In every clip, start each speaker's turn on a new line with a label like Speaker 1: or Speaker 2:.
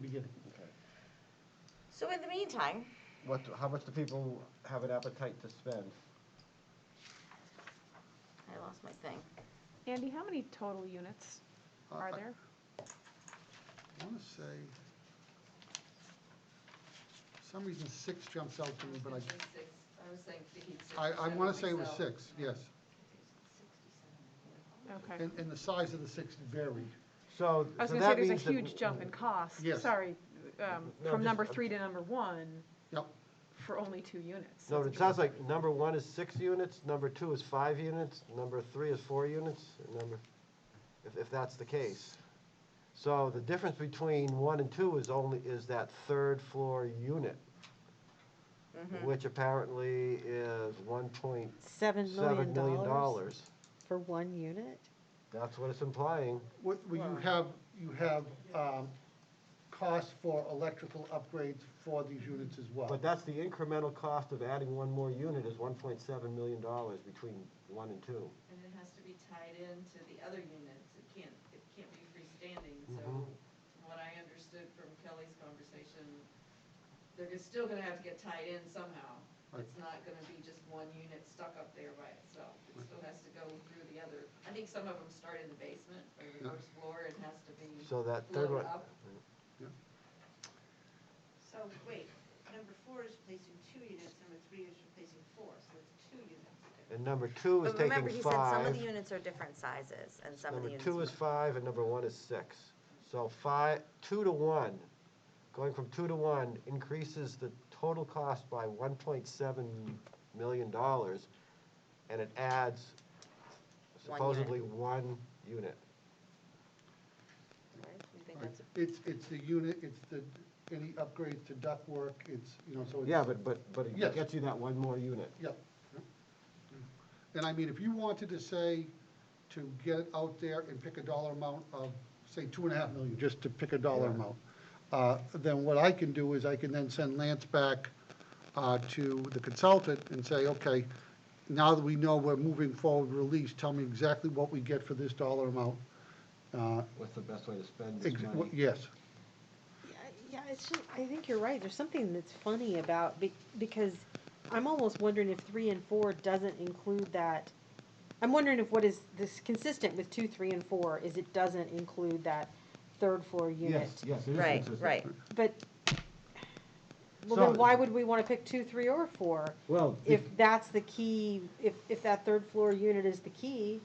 Speaker 1: beginning.
Speaker 2: So in the meantime,
Speaker 3: What, how much do people have an appetite to spend?
Speaker 2: I lost my thing.
Speaker 4: Andy, how many total units are there?
Speaker 5: I want to Uh, say, for some reason, six jumps out to me, but
Speaker 6: Six, I was saying, thinking six.
Speaker 5: I, I, I
Speaker 6: seven,
Speaker 5: want to say it was
Speaker 6: myself.
Speaker 5: six, yes.
Speaker 4: Okay.
Speaker 5: And, and the size of the six varied.
Speaker 3: So,
Speaker 4: I was
Speaker 3: so
Speaker 4: gonna say,
Speaker 3: that
Speaker 4: there's
Speaker 3: means
Speaker 4: a
Speaker 3: that.
Speaker 4: huge jump in cost,
Speaker 5: Yes.
Speaker 4: sorry, um,
Speaker 3: No,
Speaker 4: from
Speaker 3: just-
Speaker 4: number three to number one
Speaker 5: Yep,
Speaker 4: for only two units.
Speaker 3: No,
Speaker 4: That's
Speaker 3: it sounds like number one is six units, number two is five units, number three is four units, and number, if, if that's the case. So the difference between one and two is only, is that third floor unit, which apparently is one point
Speaker 7: Seven
Speaker 3: seven
Speaker 7: million
Speaker 3: million
Speaker 7: dollars
Speaker 3: dollars.
Speaker 7: for one unit?
Speaker 3: That's what it's implying.
Speaker 5: what, well, you have, you have, um, costs for electrical upgrades for these units as well.
Speaker 3: But that's the incremental cost of adding one more unit is one point seven million dollars between one and two.
Speaker 6: And it has to be tied into the other units, it can't, it can't be freestanding, so
Speaker 3: Mhm.
Speaker 6: from what I understood from Kelly's conversation, they're gonna- still gonna have to get tied in somehow. It's not gonna be just one unit stuck up there by itself, it still has to go through the other, I think some of them start in the basement or the
Speaker 5: Yeah.
Speaker 6: first floor, it has to be
Speaker 3: So that third one,
Speaker 6: blown up.
Speaker 8: So, wait, number four is replacing two units, number three is replacing four, so it's two units.
Speaker 3: and number two is
Speaker 2: But remember, he
Speaker 3: taking
Speaker 2: said some of
Speaker 3: five.
Speaker 2: the units are different sizes and some of the
Speaker 3: Number
Speaker 2: units.
Speaker 3: two is five and number one is six. So five, two to one, going from two to one increases the total cost by one point seven million dollars. And it adds
Speaker 2: One unit.
Speaker 3: supposedly one unit.
Speaker 2: Right? You think
Speaker 5: Right.
Speaker 2: that's-
Speaker 5: It's, it's the unit, it's the, any upgrades to ductwork, it's, you know, so it's.
Speaker 3: Yeah, but, but, but it
Speaker 5: Yes.
Speaker 3: gets you that one more unit.
Speaker 5: Yep. And I mean, if you wanted to say, to get it out there and pick a dollar amount of, say, two and a half million, just to pick a dollar
Speaker 3: Yeah.
Speaker 5: amount, uh, then what I can do is I can then send Lance back uh, to the consultant and say, okay, now that we know we're moving forward release, tell me exactly what we get for this dollar amount. Uh,
Speaker 3: What's the best way to spend
Speaker 5: ex- what- Yes,
Speaker 7: Yeah, yeah, it's just, I think you're right, there's something that's funny about, be- because I'm almost wondering if three and four doesn't include that. I'm wondering if what is this consistent with two, three, and four is it doesn't include that third floor unit.
Speaker 3: Yes, yes, it is
Speaker 2: Right,
Speaker 3: consistent.
Speaker 2: right.
Speaker 7: But, well, then
Speaker 3: So-
Speaker 7: why would we wanna pick two, three, or four?
Speaker 3: Well,
Speaker 7: If that's the key, if, if that third floor unit is the key,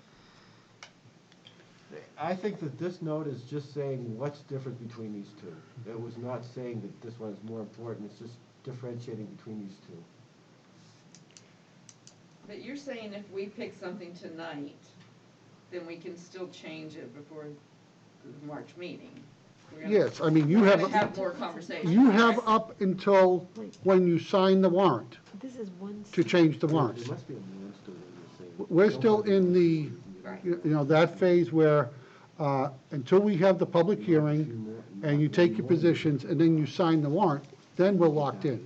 Speaker 3: I think that this note is just saying what's different between these two. It was not saying that this one is more important, it's just differentiating between these two.
Speaker 6: But you're saying if we pick something tonight, then we can still change it before the March meeting? We're gonna-
Speaker 5: yes, I mean, you
Speaker 6: We're gonna
Speaker 5: have,
Speaker 6: have more conversation.
Speaker 5: you have up until when you sign the warrant
Speaker 7: this is one.
Speaker 5: to change the warrant.
Speaker 3: There must be a nuance to what you're saying.
Speaker 5: We're still in the, you you know, that phase where, uh, until we have the public hearing, and you take your positions, and then you sign the warrant, then we're locked in.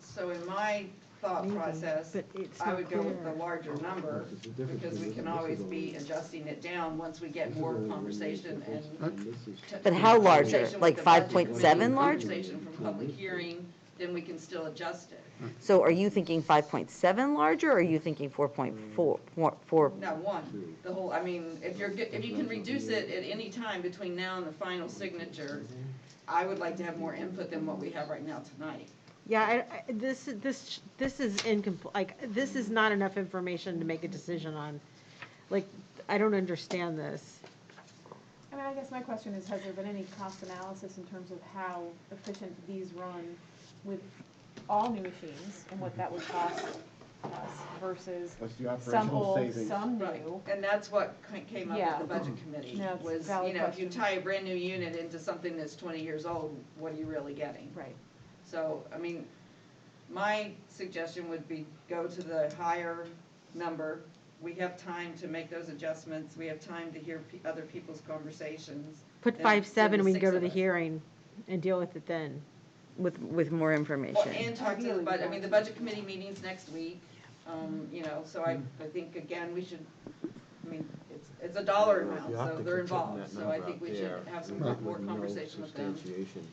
Speaker 6: So in my thought
Speaker 7: Maybe,
Speaker 6: process,
Speaker 7: but it's
Speaker 6: I
Speaker 7: not
Speaker 6: would go with
Speaker 7: clear.
Speaker 6: the larger number,
Speaker 3: This is the difference
Speaker 6: because we
Speaker 3: between
Speaker 6: can
Speaker 3: this is
Speaker 6: always
Speaker 3: all-
Speaker 6: be adjusting it down once we get more conversation and.
Speaker 2: But how larger?
Speaker 6: conversation with
Speaker 2: Like
Speaker 6: the budget
Speaker 2: 5.7
Speaker 6: committee,
Speaker 2: large?
Speaker 6: Conversation from public hearing, then we can still adjust it.
Speaker 2: So are you thinking five point seven larger, or are you thinking four point four, four, four?
Speaker 6: No, one, the whole, I mean, if you're, get- if you can reduce it at any time between now and the final signature, I would like to have more input than what we have right now tonight.
Speaker 7: Yeah, I, I, this, this, this is incomplete, like, this is not enough information to make a decision on. Like, I don't understand this.
Speaker 4: I mean, I guess my question is, has there been any cost analysis in terms of how efficient these run with all new machines and what that would cost us versus
Speaker 3: What's the
Speaker 4: some
Speaker 3: operational
Speaker 4: old,
Speaker 3: savings?
Speaker 4: some
Speaker 6: Right,
Speaker 4: new?
Speaker 6: and that's what ca- came up
Speaker 4: Yeah.
Speaker 6: with the budget committee,
Speaker 4: No, it's a
Speaker 6: was, you
Speaker 4: valid
Speaker 6: know, if you
Speaker 4: question.
Speaker 6: tie a brand new unit into something that's twenty years old, what are you really getting?
Speaker 4: Right.
Speaker 6: So, I mean, my suggestion would be go to the higher number. We have time to make those adjustments, we have time to hear pe- other people's conversations.
Speaker 7: Put
Speaker 6: Then-
Speaker 7: five, seven,
Speaker 6: then
Speaker 7: we can go
Speaker 6: six
Speaker 7: to
Speaker 6: of
Speaker 7: the
Speaker 6: us.
Speaker 7: hearing and deal with it then.
Speaker 2: With, with more
Speaker 6: Well,
Speaker 2: information.
Speaker 6: and talk to the
Speaker 4: Ideally,
Speaker 6: budget, I
Speaker 4: yeah.
Speaker 6: mean, the budget committee meeting's next week, um, you know, so I, I think, again, we should, I mean, it's, it's a dollar
Speaker 3: You
Speaker 6: amount,
Speaker 3: have
Speaker 6: so
Speaker 3: to
Speaker 6: they're
Speaker 3: keep putting
Speaker 6: involved,
Speaker 3: that
Speaker 6: so I
Speaker 3: number
Speaker 6: think
Speaker 3: out
Speaker 6: we should
Speaker 3: there
Speaker 6: have some
Speaker 3: with
Speaker 6: more
Speaker 3: no
Speaker 6: conversation with them.
Speaker 3: substantiation.